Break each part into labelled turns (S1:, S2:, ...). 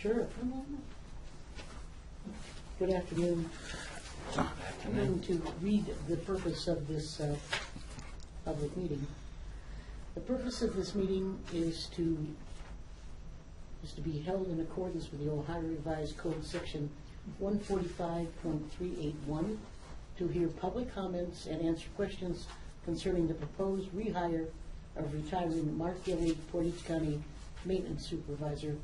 S1: Sure. come on up. Good afternoon. I'm going to read the purpose of this uh, public meeting. The purpose of this meeting is to, is to be held in accordance with the Ohio Revised Code, Section 145.381, to hear public comments and answer questions concerning the proposed rehire of retiring Mark Gilly, Portage County Maintenance Supervisor,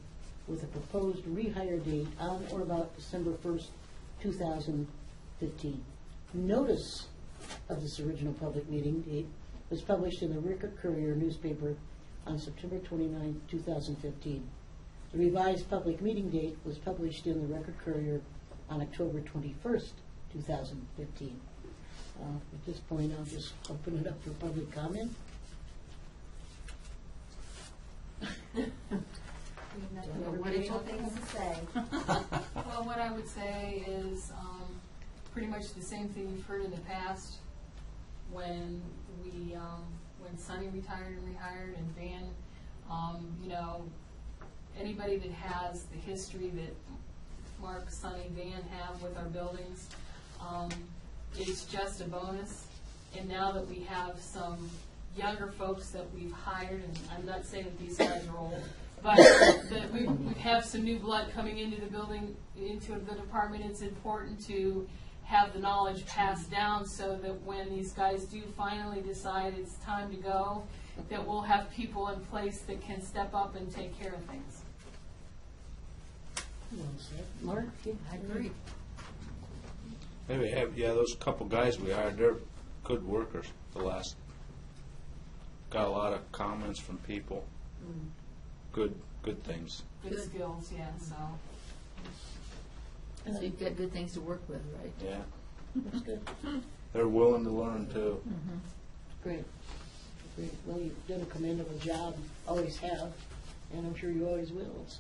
S1: with a proposed rehire date on or about December 1st, 2015. Notice of this original public meeting date was published in the Rickard Courier newspaper on September 29, 2015. The revised public meeting date was published in the Record Courier on October 21st, 2015. Uh, At this point, I'll just open it up for public comment.
S2: Nothing but wonderful things to say.
S3: Well, what I would say is um, pretty much the same thing you've heard in the past when we, um, when Sonny retired and rehired and Van, um, you know, anybody that has the history that Mark, Sonny, Van have with our buildings um, is just a bonus. And now that we have some younger folks that we've hired, and I'm not saying that these guys are old, but that we, we have some new blood coming into the building, into the department, it's important to have the knowledge passed down so that when these guys do finally decide it's time to go, that we'll have people in place that can step up and take care of things.
S1: Well said. Mark? I agree.
S4: Maybe have, yeah, those couple guys we hired, they're good workers, the last. Got a lot of comments from people. Good, good things.
S3: Good skills, yeah, so.
S2: So you've got good things to work with, right?
S4: Yeah.
S1: That's good.
S4: They're willing to learn too.
S1: Great. Great. Well, you've done a commendable job, always have, and I'm sure you always will. so.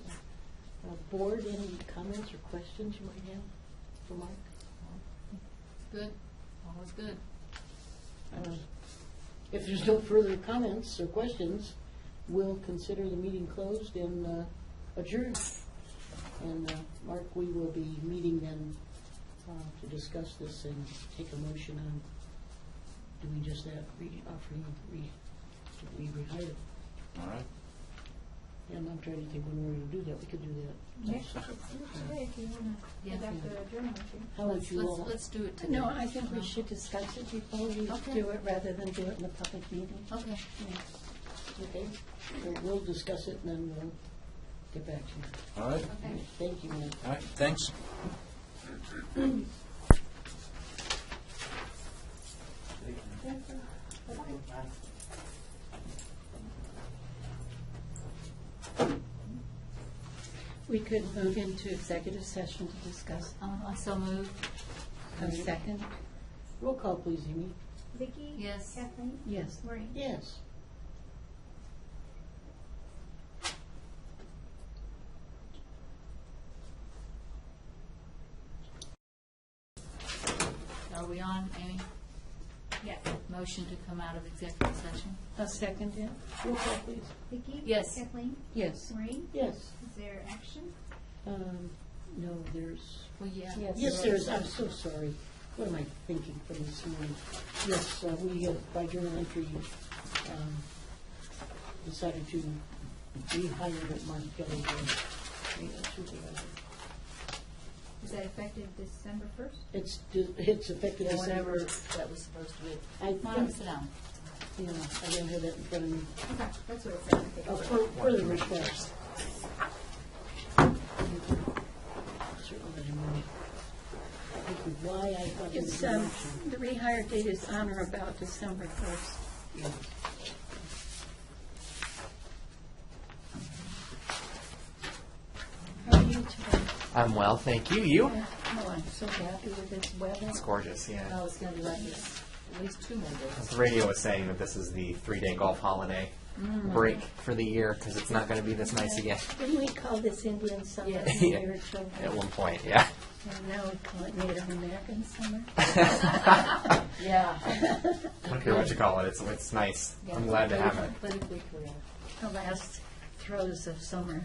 S1: Uh, Board, any comments or questions you might have for Mark?
S2: Good, always good.
S1: Uh, If there's no further comments or questions, we'll consider the meeting closed and uh, adjourned. And, uh, Mark, we will be meeting then uh, to discuss this and take a motion on doing just that, re- offering, re- to be rehired.
S4: All right.
S1: And I'm trying to think when we're going to do that. We could do that.
S5: Next, today, if you want to
S2: Yeah.
S5: conduct the adjournment, you-
S1: How would you
S2: Let's,
S1: all?
S2: let's do it today.
S6: No, I think we should discuss it before we
S2: Okay.
S6: do it, rather than do it in a public meeting.
S2: Okay.
S1: Okay, We'll- we'll discuss it and then we'll get back to you.
S4: All right.
S1: Thank you, ma'am.
S4: All right. Thanks.
S6: We could move into executive session to discuss.
S2: Um, I so move.
S6: A second?
S1: Roll call, please, Amy.
S5: Vicki?
S2: Yes.
S5: Kathleen?
S6: Yes.
S5: Maureen?
S1: Yes.
S2: Are we on, Amy?
S5: Yes.
S2: Motion to come out of executive session?
S6: A second, yeah?
S1: Roll call, please.
S5: Vicki?
S2: Yes.
S5: Kathleen?
S6: Yes.
S5: Maureen?
S1: Yes.
S5: Is there action?
S1: Um, No, there's,
S2: Well, yeah.
S6: Yes.
S1: yes, there's, I'm so sorry. What am I thinking from this morning? Yes, uh, we, uh, by journal entry, um, decided to rehire Mark Kelly as a supervisor.
S5: Is that effective December first?
S1: It's, it's effective
S2: Yeah, Whatever
S1: December.
S2: that was supposed to be.
S1: I
S2: Come on,
S1: think,
S2: sit down.
S1: yeah, I don't have that in front of me.
S5: Okay, that's what it said. I think.
S1: Uh, for- Further request. Why I thought it was
S6: It's,
S1: an
S6: um,
S1: option.
S6: the rehire date is on or about December first. How are you today?
S7: I'm well, thank you. You?
S6: Oh, I'm so happy with this weather.
S7: It's gorgeous, yeah.
S2: No, it's gonna be like this, at least two more days.
S7: The radio was saying that this is the three-day golf holiday break for the year because it's not going to be this nice again
S6: Didn't we call this Indian summer
S2: Yeah.
S6: a
S7: Yeah.
S6: year or two ago?
S7: at one point, yeah.
S6: And now we call it Native American summer.
S2: Yeah.
S7: I don't care what you call it, it's, it's nice.
S2: yeah.
S7: I'm glad to have it.
S2: Politically correct.
S6: the last throes of summer.